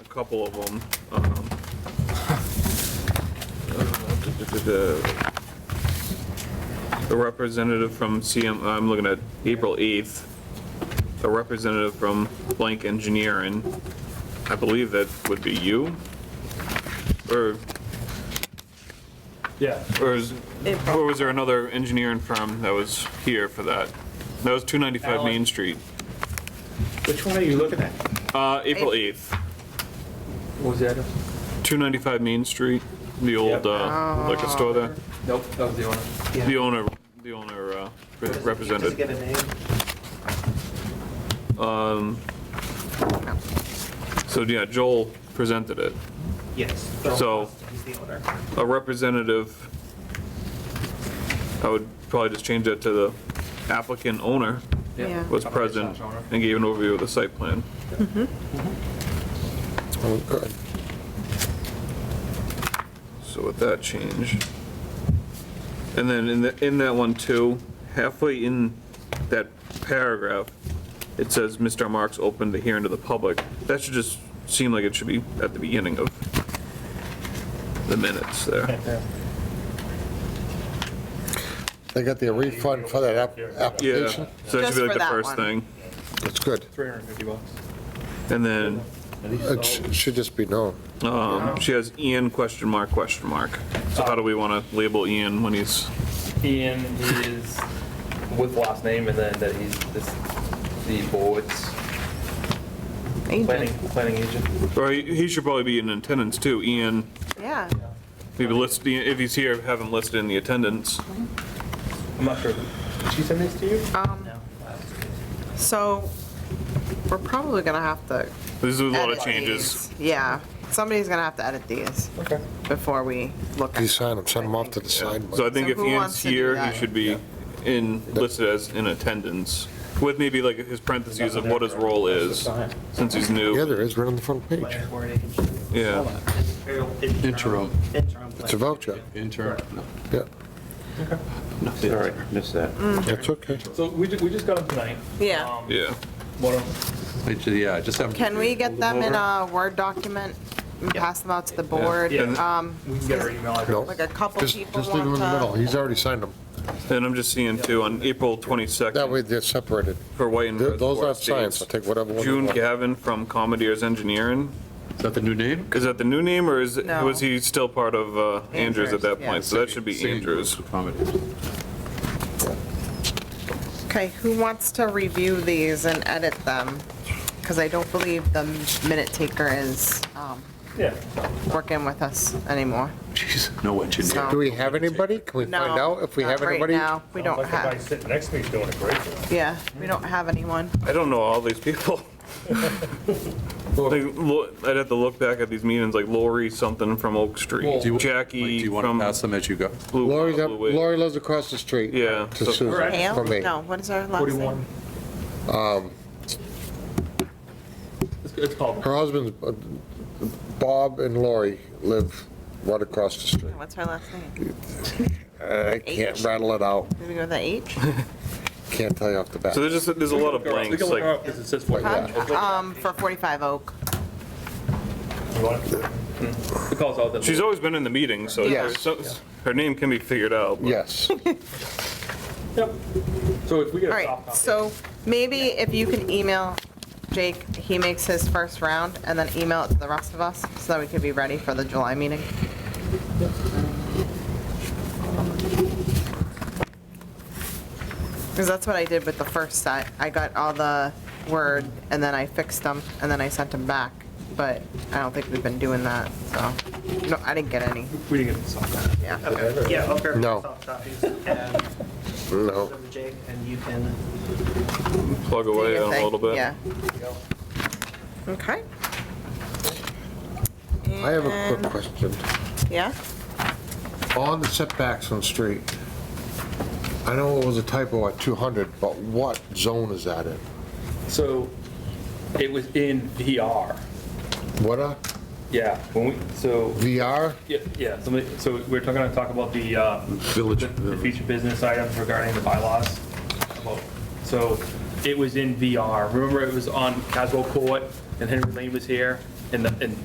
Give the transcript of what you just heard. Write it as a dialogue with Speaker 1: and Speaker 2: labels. Speaker 1: couple of them. um, uh, duh, duh, duh, duh. The representative from CM, I'm looking at April 8th, a representative from blank engineering. I believe that would be you? Or,
Speaker 2: Yeah,
Speaker 1: or is,
Speaker 3: April.
Speaker 1: or was there another engineering firm that was here for that? That was 295 Main
Speaker 2: Alan.
Speaker 1: Street,
Speaker 2: which one are you looking at?
Speaker 1: uh, April 8th.
Speaker 2: What was that?
Speaker 1: 295 Main Street, the
Speaker 2: Yep.
Speaker 1: old uh, liquor store there.
Speaker 2: Nope, that was the owner.
Speaker 1: The owner, the owner uh, re-
Speaker 2: Does it
Speaker 1: represented.
Speaker 2: get a name?
Speaker 1: So, yeah, Joel presented it.
Speaker 2: Yes.
Speaker 1: So-
Speaker 2: He's the owner.
Speaker 1: A representative, I would probably just change that to the applicant owner
Speaker 3: Yeah.
Speaker 1: was present and gave an overview of the site plan.
Speaker 4: Oh, good.
Speaker 1: So with that change. And then in the, in that one too, halfway in that paragraph, it says Mr. Marks opened the hearing to the public. That should just seem like it should be at the beginning of the minutes there.
Speaker 4: They got their refund for that app-
Speaker 1: Yeah,
Speaker 4: application?
Speaker 1: so that should
Speaker 3: Just
Speaker 1: be like
Speaker 3: for
Speaker 1: the
Speaker 3: that
Speaker 1: first
Speaker 3: one.
Speaker 1: thing.
Speaker 4: That's good.
Speaker 2: Three hundred and fifty bucks.
Speaker 1: And then,
Speaker 4: It sh- should just be known.
Speaker 1: um, she has Ian question mark, question mark. So how do we want to label Ian when he's,
Speaker 5: Ian is with last name and then that he's this, the board's planning,
Speaker 3: Agent,
Speaker 5: planning agent.
Speaker 1: or he he should probably be in attendance too, Ian.
Speaker 3: yeah.
Speaker 1: Maybe list, if he's here, have him listed in the attendance.
Speaker 5: I'm not sure. Did she send this to you?
Speaker 3: Um,
Speaker 2: Uh,
Speaker 3: So we're probably gonna have to.
Speaker 1: This is a lot of
Speaker 3: edit
Speaker 1: changes.
Speaker 3: these. Yeah, somebody's gonna have to edit these
Speaker 5: Okay.
Speaker 3: before we look.
Speaker 4: You
Speaker 3: at
Speaker 4: sign them, send them off to the sign.
Speaker 1: So I think
Speaker 3: So
Speaker 1: if
Speaker 3: who
Speaker 1: Ian's
Speaker 3: wants to do
Speaker 1: here, he
Speaker 3: that?
Speaker 1: should be in, listed as in attendance, with maybe like his parentheses of what his role is, since he's
Speaker 4: Yeah,
Speaker 1: new.
Speaker 4: there is, right on the front page.
Speaker 1: Yeah,
Speaker 6: Interim.
Speaker 4: It's a voucher.
Speaker 6: Intern. No,
Speaker 4: Yeah,
Speaker 6: no,
Speaker 7: Sorry, missed that.
Speaker 4: that's okay.
Speaker 2: So we, ju- we just got them tonight.
Speaker 3: Yeah.
Speaker 2: Um,
Speaker 1: yeah.
Speaker 2: One of,
Speaker 6: I ju- Yeah, I just have.
Speaker 3: Can we get them in
Speaker 6: over.
Speaker 3: a Word document and pass them out to the board?
Speaker 2: Yeah.
Speaker 3: Um,
Speaker 2: we can get our email address.
Speaker 4: No.
Speaker 3: Like a couple
Speaker 4: Just,
Speaker 3: people
Speaker 4: just leave them in the middle.
Speaker 3: want to.
Speaker 4: He's already signed them.
Speaker 1: And I'm just seeing too, on April
Speaker 4: That
Speaker 1: 22nd,
Speaker 4: way they're separated.
Speaker 1: for White and
Speaker 4: Th- Those
Speaker 1: Reservoir
Speaker 4: aren't signed,
Speaker 1: Estates,
Speaker 4: so take whatever one you
Speaker 1: June
Speaker 4: want.
Speaker 1: Gavin from Commodore's Engineering,
Speaker 6: Is that the new name?
Speaker 1: is that the new name, or is,
Speaker 3: No.
Speaker 1: was he still part of uh, Andrews at
Speaker 3: Andrews,
Speaker 1: that
Speaker 3: yeah.
Speaker 1: point? So that should be
Speaker 6: Singing
Speaker 1: Andrews.
Speaker 6: Comedy.
Speaker 3: Okay, who wants to review these and edit them? Because I don't believe the minute taker is um,
Speaker 2: Yeah.
Speaker 3: working with us anymore.
Speaker 6: Jeez, no engineer.
Speaker 4: Do we have anybody? Can we
Speaker 3: No,
Speaker 4: find out if we
Speaker 3: not
Speaker 4: have
Speaker 3: right
Speaker 4: anybody?
Speaker 3: now. We don't
Speaker 2: Like the guy
Speaker 3: have,
Speaker 2: sitting next to me's doing a great job.
Speaker 3: yeah, we don't have anyone.
Speaker 1: I don't know all these people. Like, lo- I'd have to look back at these meetings, like Lori something from Oak Street,
Speaker 6: Do you- Like,
Speaker 1: Jackie
Speaker 6: Do you want to
Speaker 1: from
Speaker 6: pass them as you go?
Speaker 1: Blue.
Speaker 4: Lori's up,
Speaker 1: Blue Wave.
Speaker 4: Lori lives across the street.
Speaker 1: Yeah,
Speaker 4: To
Speaker 1: so-
Speaker 4: Susan,
Speaker 3: Pam?
Speaker 4: for me.
Speaker 3: No, what is our last
Speaker 2: Forty-one.
Speaker 3: name?
Speaker 2: Um, It's, it's called,
Speaker 4: Her husband's, uh, Bob and Lori live right across the street.
Speaker 3: What's her last name?
Speaker 4: I can't
Speaker 3: H.
Speaker 4: rattle it out.
Speaker 3: Did we go with the H?
Speaker 4: Can't tell you off the bat.
Speaker 1: So there's just, there's a lot of
Speaker 5: We
Speaker 1: blanks,
Speaker 5: can look her
Speaker 1: like,
Speaker 5: up because it says 41.
Speaker 3: Um, for 45 Oak.
Speaker 2: you want it?
Speaker 5: It calls out that.
Speaker 1: she's always been in the meeting, so
Speaker 3: Yes.
Speaker 1: so- her name can be figured out. but-
Speaker 4: Yes.
Speaker 2: Yep. So if we get
Speaker 3: All
Speaker 2: a soft
Speaker 3: right,
Speaker 2: copy.
Speaker 3: so maybe if you can email Jake, he makes his first round, and then email it to the rest of us, so that we can be ready for the July meeting. Because that's what I did with the first set. I got all the word, and then I fixed them, and then I sent them back. But I don't think we've been doing that, so, no, I didn't get any,
Speaker 2: We didn't get the soft copy.
Speaker 3: yeah.
Speaker 8: Yeah, I'll grab
Speaker 4: No.
Speaker 8: soft copies and
Speaker 4: No.
Speaker 8: them to Jake, and you can
Speaker 1: Plug away
Speaker 3: your
Speaker 1: on
Speaker 3: thing,
Speaker 1: a little bit.
Speaker 3: Yeah. Okay.
Speaker 4: I have a
Speaker 3: And-
Speaker 4: quick question.
Speaker 3: Yeah?
Speaker 4: On the setbacks on street, I know it was a typo at 200, but what zone is that in?
Speaker 5: So it was in VR.
Speaker 4: What uh, a
Speaker 5: Yeah, when we, so,
Speaker 4: VR?
Speaker 5: yeah, yeah, so we- so we're talking, gonna talk about the, uh,
Speaker 6: Village.
Speaker 5: the- the future business items regarding the bylaws. about- So it was in VR. Remember, it was on Caswell Court, and Henry Lane was here, and the, and